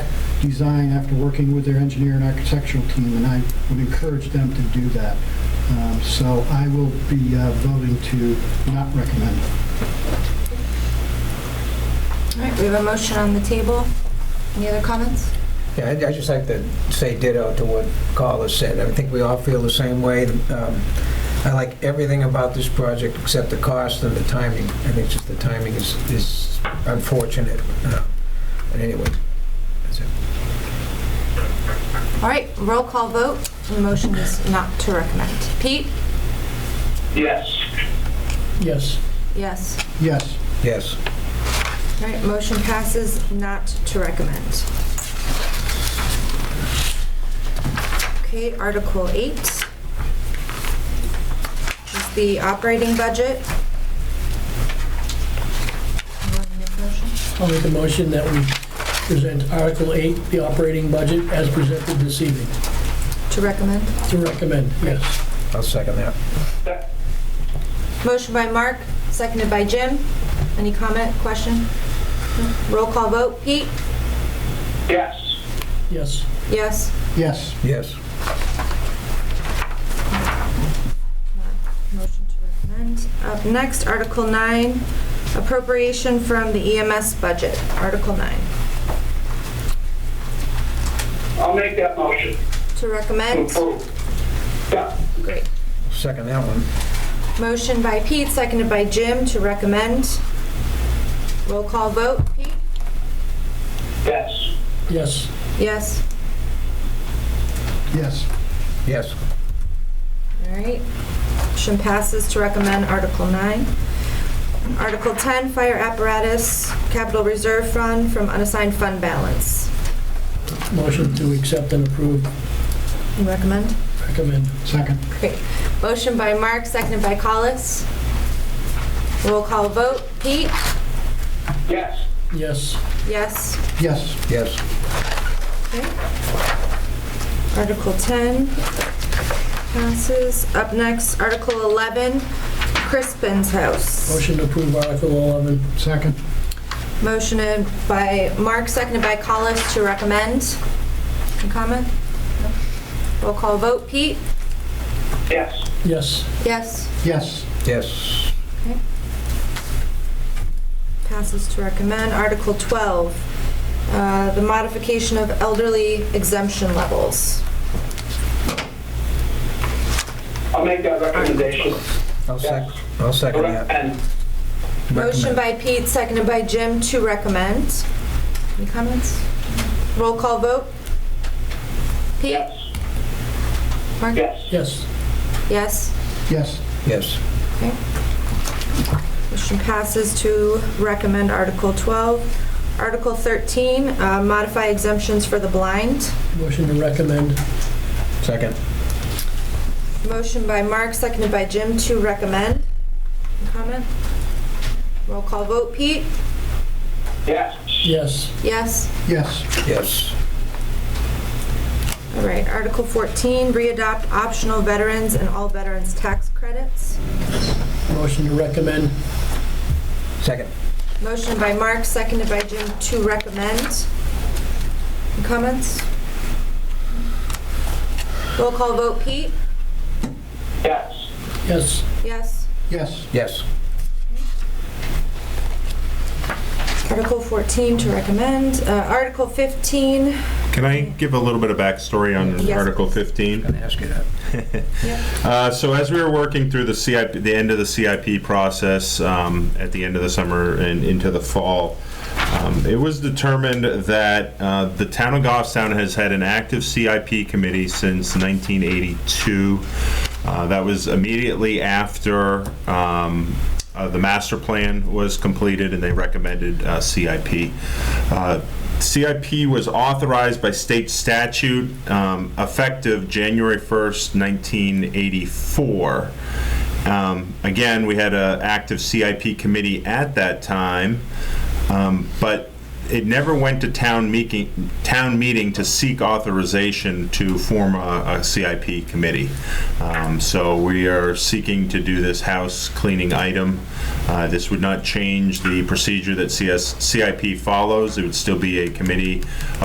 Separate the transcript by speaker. Speaker 1: design after working with their engineer and architectural team, and I would encourage them to do that. Um, So I will be uh, voting to not recommend.
Speaker 2: All right, we have a motion on the table. Any other comments?
Speaker 3: Yeah, I'd I'd just like to say ditto to what Carl has said. I think we all feel the same way. Um, I like everything about this project except the cost and the timing. I think just the timing is is unfortunate. Uh, But anyway, that's it.
Speaker 2: All right, roll call vote. The motion is not to recommend. Pete?
Speaker 4: yes.
Speaker 1: Yes.
Speaker 2: Yes.
Speaker 1: Yes.
Speaker 3: Yes.
Speaker 2: All right, motion passes not to recommend. Okay, Article 8 is the operating budget. You want to make a motion?
Speaker 5: I'll make a motion that we present Article 8, the operating budget, as presented this evening,
Speaker 2: To recommend.
Speaker 5: to recommend, yes.
Speaker 3: I'll second that.
Speaker 2: Motion by Mark, seconded by Jim. Any comment, question? No? Roll call vote. Pete?
Speaker 4: Yes.
Speaker 5: Yes,
Speaker 2: Yes.
Speaker 1: Yes.
Speaker 3: Yes.
Speaker 2: Motion to recommend. Up next, Article 9, appropriation from the EMS budget. Article 9.
Speaker 4: I'll make that motion.
Speaker 2: To recommend?
Speaker 4: Approve. Yeah,
Speaker 2: Great.
Speaker 3: Second that one.
Speaker 2: Motion by Pete, seconded by Jim to recommend. Roll call vote. Pete?
Speaker 4: yes.
Speaker 5: yes,
Speaker 2: Yes.
Speaker 1: Yes.
Speaker 3: Yes.
Speaker 2: All right. Motion passes to recommend Article 9. Article 10, fire apparatus capital reserve fund from unassigned fund balance.
Speaker 5: motion to accept and approve,
Speaker 2: You recommend?
Speaker 5: recommend,
Speaker 1: Second.
Speaker 2: Great. Motion by Mark, seconded by Collis. Roll call vote. Pete?
Speaker 4: Yes.
Speaker 5: yes.
Speaker 2: Yes.
Speaker 1: Yes.
Speaker 3: Yes.
Speaker 2: Article 10 passes. Up next, Article 11, Crispin's House.
Speaker 5: Motion to approve Article 11,
Speaker 1: Second.
Speaker 2: Motion by Mark, seconded by Collis to recommend. Any comment? No? Roll call vote. Pete?
Speaker 4: Yes.
Speaker 5: yes.
Speaker 2: Yes.
Speaker 1: Yes.
Speaker 3: Yes.
Speaker 2: Passes to recommend. Article 12, uh, the modification of elderly exemption levels.
Speaker 4: I'll make that recommendation.
Speaker 3: I'll sec, I'll second that.
Speaker 4: And
Speaker 2: Motion by
Speaker 3: Recommend.
Speaker 2: Pete, seconded by Jim to recommend. Any comments? Roll call vote. Pete?
Speaker 4: yes.
Speaker 2: Mark?
Speaker 4: Yes.
Speaker 5: Yes,
Speaker 2: Yes.
Speaker 1: Yes.
Speaker 3: Yes.
Speaker 2: Motion passes to recommend Article 12. Article 13, uh, modify exemptions for the blind.
Speaker 5: motion to recommend,
Speaker 3: Second.
Speaker 2: Motion by Mark, seconded by Jim to recommend. Any Comment? Roll call vote. Pete?
Speaker 4: Yes.
Speaker 5: yes.
Speaker 2: Yes.
Speaker 1: Yes.
Speaker 3: Yes.
Speaker 2: All right. Article 14, re-adopt optional veterans and all veterans tax credits.
Speaker 5: Motion to recommend,
Speaker 3: Second.
Speaker 2: Motion by Mark, seconded by Jim to recommend. Any Comments? Roll call vote, Pete?
Speaker 4: Yes.
Speaker 5: yes.
Speaker 2: Yes.
Speaker 1: Yes.
Speaker 3: Yes.
Speaker 2: Article 14 to recommend. Uh, Article 15,
Speaker 6: Can I give a little bit of backstory on
Speaker 2: Yes,
Speaker 6: Article
Speaker 2: please.
Speaker 6: 15?
Speaker 3: Gonna ask you that.
Speaker 6: Uh, so as we were working through the CIP, the end of the CIP process um, at the end of the summer and into the fall, um, it was determined that uh, the town of Goffstown has had an active CIP committee since 1982. Uh, that was immediately after um, uh, the master plan was completed and they recommended uh, CIP. Uh, CIP was authorized by state statute um, effective January 1st, 1984. Um, Again, we had an active CIP committee at that time, um, but it never went to town meeting, town meeting to seek authorization to form a a CIP committee. Um, So we are seeking to do this house cleaning item. Uh, This would not change the procedure that CS CIP follows. It would still be a committee